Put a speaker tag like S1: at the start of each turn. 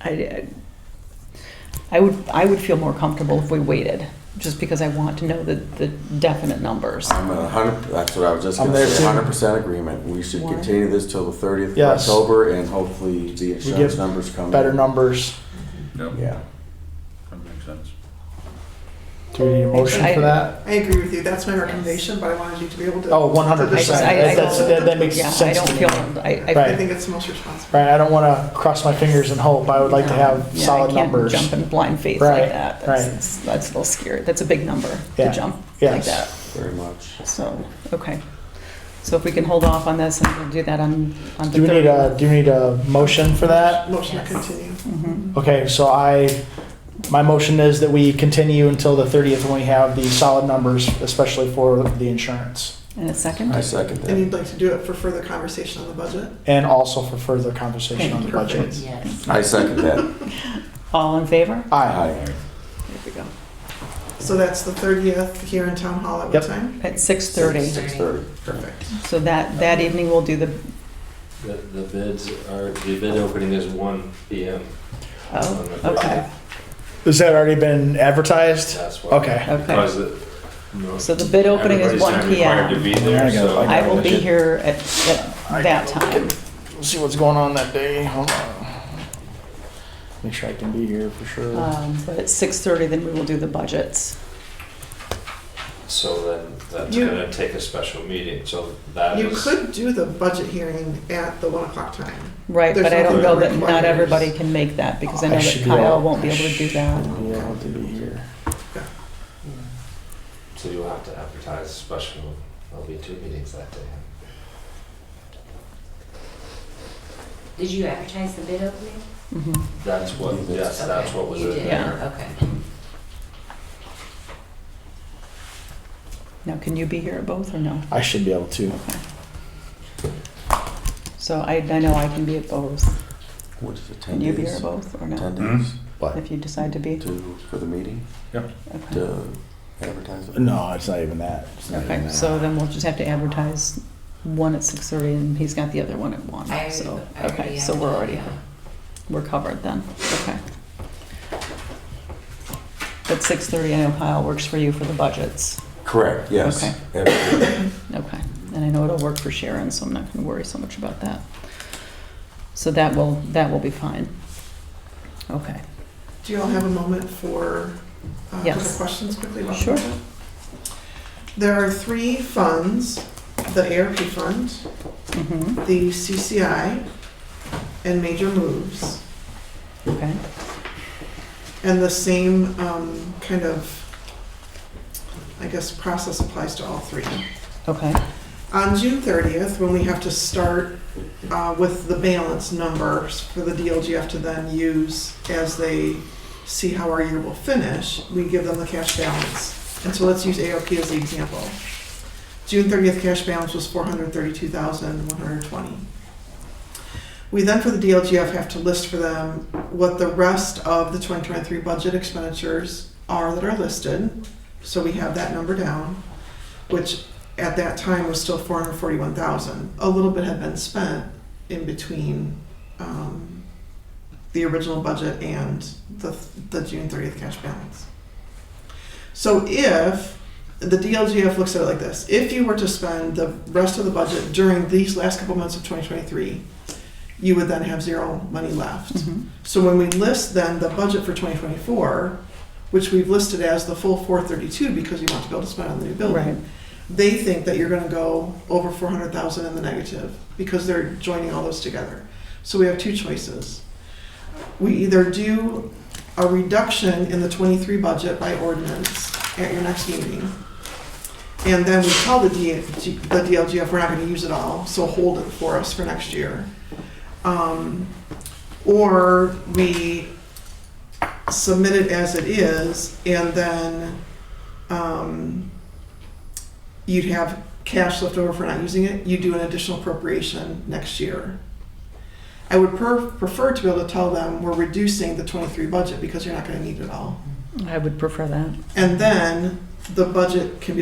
S1: I, I would, I would feel more comfortable if we waited, just because I want to know the, the definite numbers.
S2: I'm a hundred, that's what I was just
S3: I'm
S2: gonna
S3: there
S2: say,
S3: too.
S2: hundred percent agreement. We should
S1: Why?
S2: continue this till the thirtieth of
S3: Yes.
S2: October and hopefully the insurance
S3: get
S2: numbers come.
S3: better
S2: in.
S3: numbers.
S4: Yep,
S2: Yeah.
S4: that makes sense.
S3: Do we need a motion
S1: I-
S3: for that?
S5: I agree with you. That's my recommendation, but I wanted you to be able to.
S3: Oh, one hundred
S1: I
S3: percent.
S1: just- I- I don't-
S3: That that makes
S1: Yeah,
S3: sense.
S1: I don't
S3: to me.
S1: feel, I, I.
S5: I
S3: Right.
S5: think it's the most responsible.
S3: Right, I don't wanna cross my fingers and hope. I would like to have
S1: Yeah,
S3: solid numbers.
S1: I can't jump in blind faith like
S3: Right,
S1: that.
S3: right.
S1: That's, that's a little scary. That's a big number
S3: Yeah,
S1: to jump like
S3: yes.
S1: that.
S2: Very much.
S1: So, okay. So if we can hold off on this and we'll do that on, on the
S3: Do we need a,
S1: third.
S3: do we need a motion for that?
S5: Motion to
S1: Yes.
S5: continue.
S1: Mhm.
S3: Okay, so I, my motion is that we continue until the thirtieth when we have the solid numbers, especially for the insurance.
S1: And a second?
S2: I second
S5: And
S2: that.
S5: you'd like to do it for further conversation on the budget?
S3: And also for further conversation on the
S5: Perfect.
S3: budget.
S2: I second that.
S1: All in favor?
S3: Aye.
S2: Aye.
S1: There we go.
S5: So that's the thirtieth here in town hall at what
S3: Yep.
S5: time?
S1: At six thirty.
S2: Six thirty.
S5: Perfect.
S1: So that, that evening we'll do the,
S6: The, the bids are, the bid opening is one P M.
S1: oh, okay,
S3: Has that already been advertised?
S6: That's why.
S3: Okay.
S1: okay.
S6: Because it- no.
S1: So the bid opening is
S6: Everybody's
S1: one
S6: not
S1: P
S6: required to
S1: M.
S6: be there,
S3: I gotta-
S6: so-
S3: I
S1: I will be
S3: Gotcha.
S1: here at, at that time.
S3: We'll see what's going on that day. Hold on. Make sure I can be here for sure.
S1: Um, but at six thirty, then we will do the budgets.
S6: So then that's
S5: You-
S6: gonna take a special meeting, so that
S5: You
S6: is.
S5: could do the budget hearing at the one o'clock time.
S1: Right, but
S5: There's
S1: I don't
S5: nothing
S1: know
S5: that
S1: that not
S5: requires-
S1: everybody can make that because I know
S3: I
S1: that
S3: should be
S1: Kyle
S3: able-
S1: won't be able to do that.
S3: Be able to be here.
S6: So you'll have to advertise special, there'll be two meetings that day.
S7: Did you advertise the bid opening?
S1: Mhm.
S6: That's what, yes, that's
S7: Okay,
S6: what was
S7: you
S6: in
S7: did,
S6: there.
S7: Okay.
S1: Now, can you be here at both or no?
S3: I should be able to.
S1: Okay. So I, I know I can be at both.
S2: What is it, ten
S1: Can you be here at
S2: days?
S1: both or
S2: Ten
S1: no?
S2: days
S1: If you decide to
S3: Mm-hmm.
S1: be,
S2: to, for the meeting,
S1: okay.
S2: to advertise it?
S3: No, it's not even that. It's not even
S1: Okay,
S3: that.
S1: so then we'll just have to advertise one at six thirty and he's got the other one at one,
S7: I
S1: so,
S7: already- I
S1: okay,
S7: already
S1: so we're already,
S7: advertised.
S1: we're covered then, okay. But six thirty, I know Kyle works for you for the budgets.
S2: Correct, yes.
S1: Okay.
S2: Everything.
S1: Okay, and I know it'll work for Sharon, so I'm not gonna worry so much about that. So that will, that will be fine. Okay,
S5: Do you all have a moment for uh, a couple
S1: Yes.
S5: questions quickly about
S1: Sure.
S5: the budget? There are three funds, the ARP fund,
S1: mm-hmm,
S5: the CCI, and major moves.
S1: okay,
S5: And the same um, kind of, I guess, process applies to all three.
S1: okay,
S5: On June 30th, when we have to start uh, with the balance numbers for the DLGF to then use as they see how our year will finish, we give them the cash balance. And so let's use ARP as the example. June 30th cash balance was 432,120. We then, for the DLGF, have to list for them what the rest of the 2023 budget expenditures are that are listed. So we have that number down, which at that time was still 441,000. A little bit had been spent in between um, the original budget and the, the June 30th cash balance. So if, the DLGF looks at it like this, if you were to spend the rest of the budget during these last couple months of 2023, you would then have zero money left.
S1: mhm,
S5: So when we list then the budget for 2024, which we've listed as the full 432 because we want to be able to spend on the new
S1: right,
S5: building, they think that you're going to go over 400,000 in the negative because they're joining all those together. So we have two choices. We either do a reduction in the 23 budget by ordinance at your next meeting, and then we tell the DLG the DLGF, we're not going to use it all, so hold it for us for next year. Um, or we submit it as it is, and then um, you'd have cash left over for not using it, you do an additional appropriation next year. I would per- prefer to be able to tell them we're reducing the 23 budget because you're not going to need it all.
S1: I would prefer that.
S5: And then the budget can be